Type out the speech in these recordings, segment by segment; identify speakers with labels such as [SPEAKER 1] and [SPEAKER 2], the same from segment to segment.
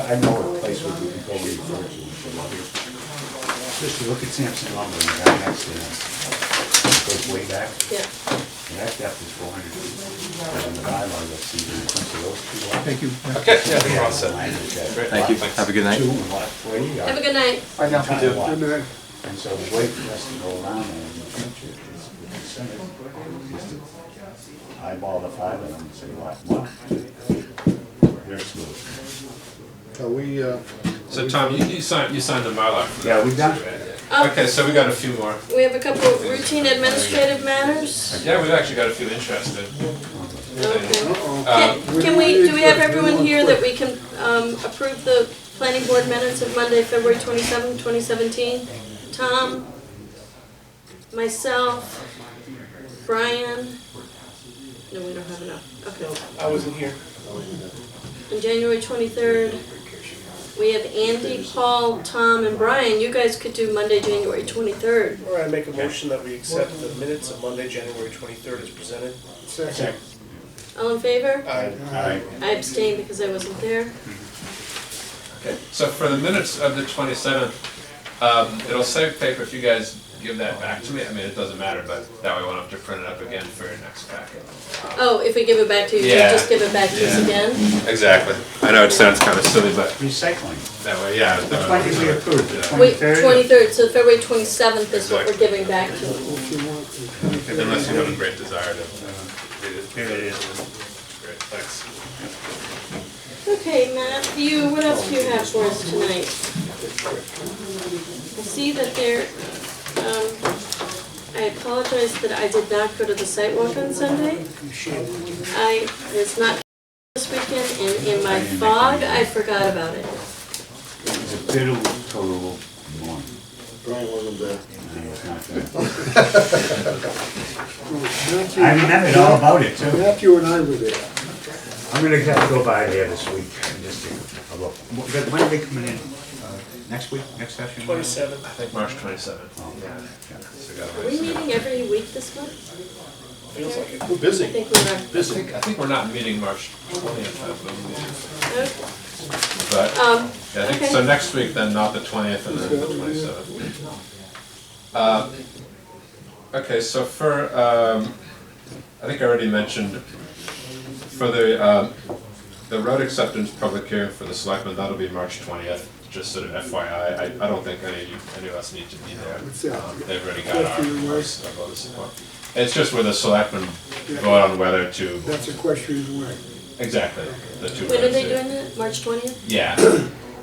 [SPEAKER 1] I know a place where we can go in for it, for lumber. Just to look at Sampson lumber, and that has, uh, goes way back,
[SPEAKER 2] Yeah.
[SPEAKER 1] and that depth is four hundred feet. And the guideline, let's see, when it comes to those two lots.
[SPEAKER 3] Thank you. Yeah.
[SPEAKER 4] Okay, yeah, I think we're all
[SPEAKER 1] the
[SPEAKER 4] set.
[SPEAKER 1] line is that
[SPEAKER 5] Thank you.
[SPEAKER 1] lot
[SPEAKER 5] Have a good night.
[SPEAKER 1] Two and lot forty are.
[SPEAKER 2] Have a good night.
[SPEAKER 3] I know.
[SPEAKER 1] Thank you.
[SPEAKER 3] Good night.
[SPEAKER 1] And so the way for us to go around that in the future is with the Senate, is to eyeball the five of them and say, lot one. There's good.
[SPEAKER 3] Are we, uh,
[SPEAKER 4] So Tom, you, you signed, you signed the Mylar. for that
[SPEAKER 1] Yeah, we
[SPEAKER 4] one
[SPEAKER 1] done.
[SPEAKER 4] too, right?
[SPEAKER 2] Um,
[SPEAKER 4] Okay, so we got a few more.
[SPEAKER 2] We have a couple of routine administrative matters.
[SPEAKER 4] Yeah, we've actually got a few interested.
[SPEAKER 2] Okay.
[SPEAKER 3] uh-oh.
[SPEAKER 4] Um,
[SPEAKER 2] Can can we, do we have everyone here that we can um, approve the planning board minutes of Monday, February 27, 2017? Tom, myself, Brian. No, we don't have enough. Okay.
[SPEAKER 6] I wasn't here.
[SPEAKER 2] On January 23rd, we have Andy, Paul, Tom, and Brian. You guys could do Monday, January 23rd.
[SPEAKER 6] All right, I make a motion that we accept the minutes of Monday, January twenty-third as presented.
[SPEAKER 3] Second.
[SPEAKER 2] All in favor?
[SPEAKER 6] Aye.
[SPEAKER 1] Aye.
[SPEAKER 2] I abstained because I wasn't there.
[SPEAKER 4] So for the minutes of the twenty-seventh, um, it'll save paper if you guys give that back to me. I mean, it doesn't matter, but that way we won't have to print it up again for your next packet.
[SPEAKER 2] Oh, if we give it back to you, you
[SPEAKER 4] Yeah.
[SPEAKER 2] just give it back to us
[SPEAKER 4] Yeah.
[SPEAKER 2] again?
[SPEAKER 4] Exactly. I know it sounds kind of silly, but
[SPEAKER 1] Recycling, Uh,
[SPEAKER 4] that way, yeah.
[SPEAKER 1] the twenty we approved, the
[SPEAKER 2] Wait,
[SPEAKER 1] twenty-third.
[SPEAKER 2] twenty-third, so February twenty-seventh is what we're giving back to you.
[SPEAKER 4] Unless you have a great desire to uh, read it. Here it is. Great, thanks.
[SPEAKER 2] Okay, Matthew, what else do you have for us tonight? I see that there, um, I apologize that I did not go to the site walk on Sunday. I was not this weekend, and in my fog, I forgot about it.
[SPEAKER 1] It's a bitter total one.
[SPEAKER 3] Brian wasn't there.
[SPEAKER 1] And it's not good. I remembered all about it too.
[SPEAKER 3] Matthew and I were there.
[SPEAKER 1] I'm gonna have to go by there this week and just take a look. Wh- When are they coming in? Uh, Next week, next session?
[SPEAKER 4] I
[SPEAKER 6] Twenty-seventh,
[SPEAKER 4] think March twenty-seventh.
[SPEAKER 1] Oh,
[SPEAKER 4] Yeah. So we
[SPEAKER 2] Are
[SPEAKER 4] gotta
[SPEAKER 2] we
[SPEAKER 4] wait.
[SPEAKER 2] meeting every week this month?
[SPEAKER 6] feels like it.
[SPEAKER 3] We're
[SPEAKER 2] I
[SPEAKER 3] busy.
[SPEAKER 2] think we are.
[SPEAKER 4] I think, I think we're not meeting March twentieth, I believe.
[SPEAKER 2] Okay.
[SPEAKER 4] But,
[SPEAKER 2] Um,
[SPEAKER 4] yeah, I think, so next week then, not the twentieth and then the twenty-seventh. Uh, Okay, so for, um, I think I already mentioned, for the, um, the road acceptance public hearing for the selectmen, that'll be March twentieth, just sort of FYI, I, I don't think any, of you- any of us need to be there.
[SPEAKER 3] that?
[SPEAKER 4] Um, They've already got our,
[SPEAKER 3] Question
[SPEAKER 4] our
[SPEAKER 3] mark?
[SPEAKER 4] support. It's just where the selectmen vote on whether to,
[SPEAKER 3] That's a question in the way.
[SPEAKER 4] exactly, the two.
[SPEAKER 2] When are they
[SPEAKER 4] votes.
[SPEAKER 2] doing that? March twentieth?
[SPEAKER 4] Yeah,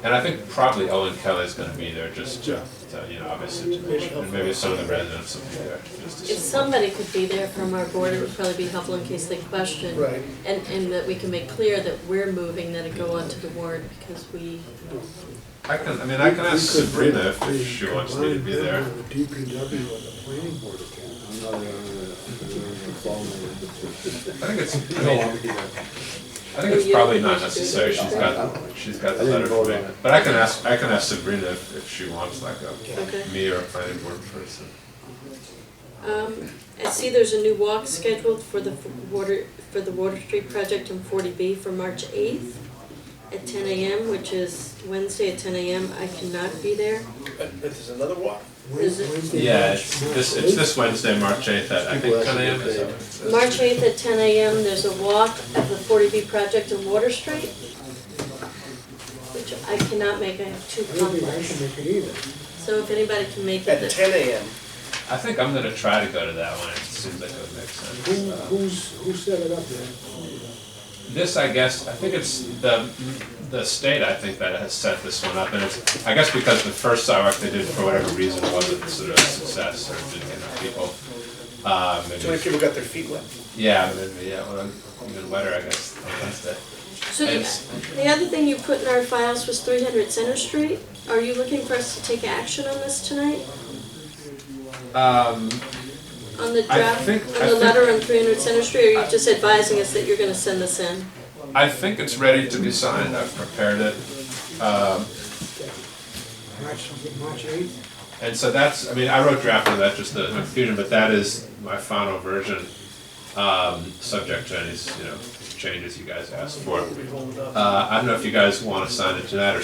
[SPEAKER 4] and I think probably Owen Kelly's gonna be there just to, to, you know, obviously to make sure, and maybe some of the residents will be there. just to
[SPEAKER 2] If
[SPEAKER 4] see.
[SPEAKER 2] somebody could be there from our board, it would probably be helpful in case they question.
[SPEAKER 3] Right.
[SPEAKER 2] And, and that we can make clear that we're moving, that it go onto the warrant because we,
[SPEAKER 4] I can, I mean, I can ask Sabrina if- if she wants me to be there.
[SPEAKER 3] The DPW and the planning board account. I'm not, uh,
[SPEAKER 4] I think it's, I mean, I think it's probably not necessary, she's got, she's got the letter for me. But I can ask, I can ask Sabrina if if she wants like
[SPEAKER 2] Okay.
[SPEAKER 4] a, me or a planning board person.
[SPEAKER 2] um, I see there's a new walk scheduled for the f- water, for the Water Street project in forty B for March eighth at ten AM, which is Wednesday at ten AM. I cannot be there.
[SPEAKER 6] But but there's another walk.
[SPEAKER 2] Is it-
[SPEAKER 3] Wednesday,
[SPEAKER 4] Yeah,
[SPEAKER 3] March
[SPEAKER 4] it's this, it's this Wednesday, March eighth, I think, ten AM is it?
[SPEAKER 2] March eighth at ten AM, there's a walk of the forty B project in Water Street, which I cannot make, I have two
[SPEAKER 3] I don't think I
[SPEAKER 2] conflicts.
[SPEAKER 3] should make it either.
[SPEAKER 2] So if anybody can make it,
[SPEAKER 6] At
[SPEAKER 2] that-
[SPEAKER 6] ten AM,
[SPEAKER 4] I think I'm gonna try to go to that one, it seems like it would make sense.
[SPEAKER 3] Who, who's, who set it up there?
[SPEAKER 4] This, I guess, I think it's the, the state, I think, that has set this one up, and it's, I guess because the first sidewalk they did, for whatever reason, wasn't sort of a success, or didn't get enough people. Um,
[SPEAKER 6] too many
[SPEAKER 4] maybe,
[SPEAKER 6] people got their feet wet.
[SPEAKER 4] yeah, maybe, yeah, well, even wetter, I guess, on Wednesday.
[SPEAKER 2] so the,
[SPEAKER 4] It's-
[SPEAKER 2] the other thing you put in our files was three hundred Center Street. Are you looking for us to take action on this tonight?
[SPEAKER 4] Um,
[SPEAKER 2] On the
[SPEAKER 4] I
[SPEAKER 2] draft, on
[SPEAKER 4] think- I
[SPEAKER 2] the
[SPEAKER 4] think-
[SPEAKER 2] letter on three hundred Center Street, or are you just advising us that you're gonna send this in?
[SPEAKER 4] I think it's ready to be signed, I've prepared it, um,
[SPEAKER 3] March, March eighth?
[SPEAKER 4] And so that's, I mean, I wrote draft of that, just the confusion, but that is my final version, um, subject to any, you know, changes you guys asked for.
[SPEAKER 6] We'll be holding up.
[SPEAKER 4] Uh, I don't know if you guys want to sign it tonight or